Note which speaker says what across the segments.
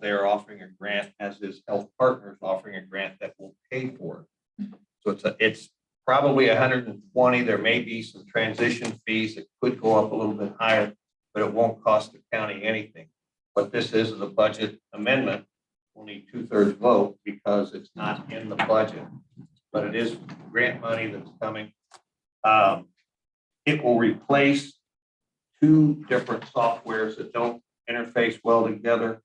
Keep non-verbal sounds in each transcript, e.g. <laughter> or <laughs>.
Speaker 1: they are offering a grant, as is Health Partners offering a grant that will pay for it. So it's, a- it's probably hundred and twenty, there may be some transition fees that could go up a little bit higher, but it won't cost the county anything. What this is, is a budget amendment, we'll need two-thirds vote because it's not in the budget, but it is grant money that's coming. Um, It will replace two different softwares that don't interface well together.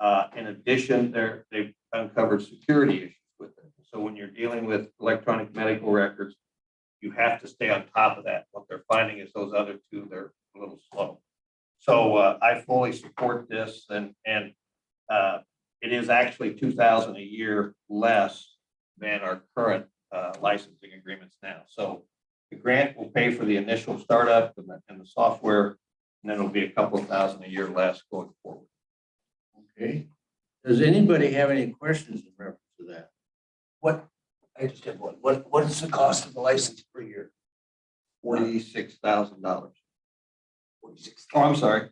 Speaker 1: Uh, in addition, there, they've uncovered security issues with it. So when you're dealing with electronic medical records, you have to stay on top of that. What they're finding is those other two, they're a little slow. So, uh, I fully support this and, and, uh, it is actually two thousand a year less than our current, uh, licensing agreements now. So the grant will pay for the initial startup and the, and the software, and then it'll be a couple of thousand a year less going forward.
Speaker 2: Okay. Does anybody have any questions in reference to that?
Speaker 3: What, I just have one, what, what is the cost of the license per year?
Speaker 1: Forty-six thousand dollars.
Speaker 3: Forty-six.
Speaker 1: Oh, I'm sorry,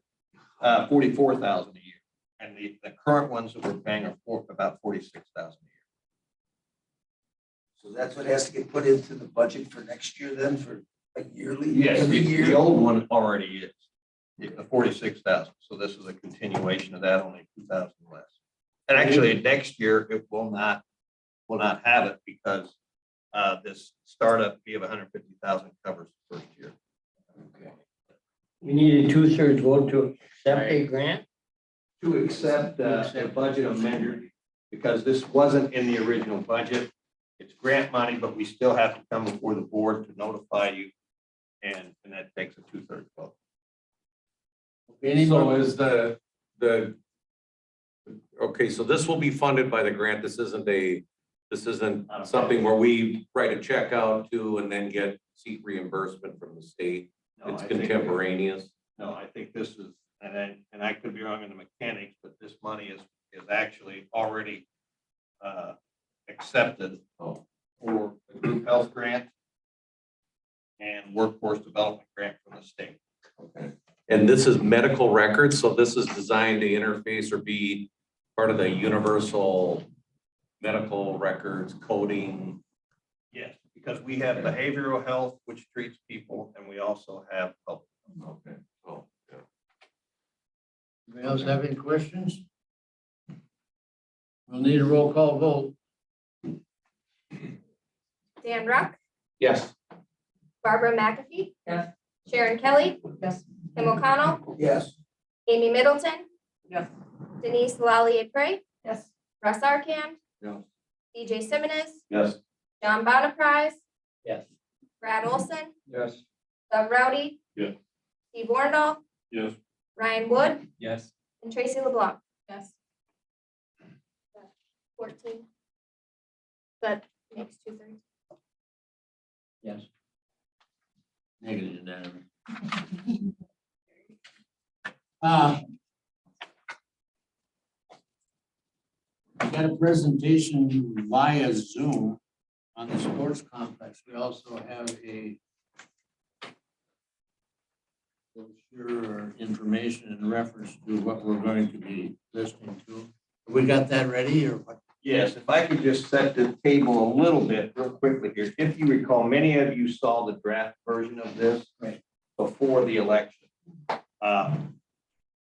Speaker 1: uh, forty-four thousand a year. And the, the current ones that we're paying are for, about forty-six thousand a
Speaker 3: So that's what has to get put into the budget for next year then, for a yearly?
Speaker 1: year.
Speaker 3: Every
Speaker 1: The the
Speaker 3: year?
Speaker 1: old one already is, It's the forty-six thousand, so this is a continuation of that, only two thousand less. And actually, next year, it will not, will not have it because, uh, this startup fee of hundred fifty thousand covers the first year.
Speaker 3: Okay.
Speaker 4: We need a two-thirds vote to accept a grant?
Speaker 1: to accept uh, a budget amendment, because this wasn't in the original budget. It's grant money, but we still have to come before the board to notify you, and, and that takes a two-thirds vote.
Speaker 2: Anybody?
Speaker 5: So is the, the, okay, so this will be funded by the grant. This isn't a, this isn't something where we write a check out to and then get seat reimbursement from the state.
Speaker 1: No,
Speaker 5: It's
Speaker 1: I think-
Speaker 5: contemporaneous.
Speaker 1: No, I think this is, and I, and I could be wrong in the mechanics, but this money is, is actually already uh, accepted for the group health grant and workforce development grant from the state.
Speaker 5: And this is medical records, so this is designed to interface or be part of the universal medical records coding.
Speaker 1: Yes, because we have behavioral health, which treats people, and we also have health.
Speaker 5: Okay. So, yeah.
Speaker 2: Anybody else have any questions? We'll need a roll call vote.
Speaker 6: Dan Ruck,
Speaker 5: Yes.
Speaker 6: Barbara McAfee.
Speaker 7: Yes.
Speaker 6: Sharon Kelly,
Speaker 7: Yes.
Speaker 6: Kim O'Connell,
Speaker 3: Yes,
Speaker 6: Amy Middleton,
Speaker 7: Yes.
Speaker 6: Denise Lallier Pray,
Speaker 7: Yes.
Speaker 6: Russ Arkamp.
Speaker 1: Yes.
Speaker 6: DJ Simmons,
Speaker 1: Yes.
Speaker 6: John Bonaprise,
Speaker 4: Yes.
Speaker 6: Brad Olson,
Speaker 1: Yes.
Speaker 6: Doug Rowdy.
Speaker 1: Yes.
Speaker 6: Steve Wornall.
Speaker 1: Yes.
Speaker 6: Ryan Wood
Speaker 4: Yes.
Speaker 6: and Tracy LeBlanc,
Speaker 7: Yes.
Speaker 6: fourteen. That makes two thirds.
Speaker 4: Yes.
Speaker 2: Negative unanimous. <laughs> Uh, We got a presentation via Zoom on the sports complex. We also have a brochure or information in reference to what we're going to be listening to. We got that ready or what?
Speaker 1: Yes, if I could just set the table a little bit real quickly here. If you recall, many of you saw the draft version of this
Speaker 2: Right.
Speaker 1: before the election. Uh,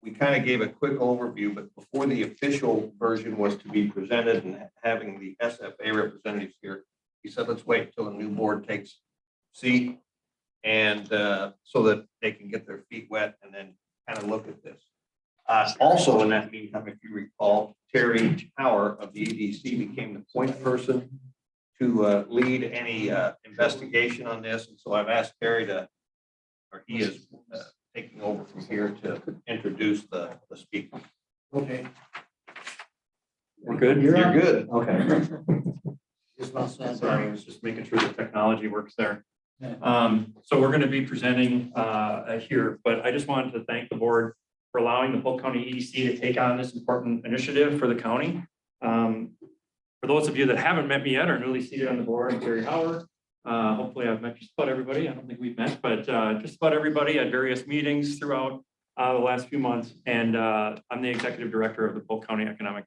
Speaker 1: We kind of gave a quick overview, but before the official version was to be presented and having the SFA representatives here, he said, let's wait till a new board takes seat and uh, so that they can get their feet wet and then kind of look at this. Uh, also in that meantime, if you recall, Terry Tower of the EDC became the point person to, uh, lead any, uh, investigation on this. And so I've asked Terry to, or he is, uh, taking over from here to introduce the, the speaker.
Speaker 2: Okay,
Speaker 8: We're good?
Speaker 2: You're
Speaker 8: You're
Speaker 2: up.
Speaker 8: good. Okay.
Speaker 2: just about that.
Speaker 8: Sorry, I was just making sure the technology works there.
Speaker 2: Yeah.
Speaker 8: Um, so we're gonna be presenting, uh, here, but I just wanted to thank the board for allowing the Polk County EDC to take on this important initiative for the county. Um, for those of you that haven't met me yet or newly seated on the board, I'm Terry Howard. Uh, hopefully I've met just about everybody. I don't think we've met, but, uh, just about everybody at various meetings throughout uh, the last few months, and, uh, I'm the executive director of the Polk County Economic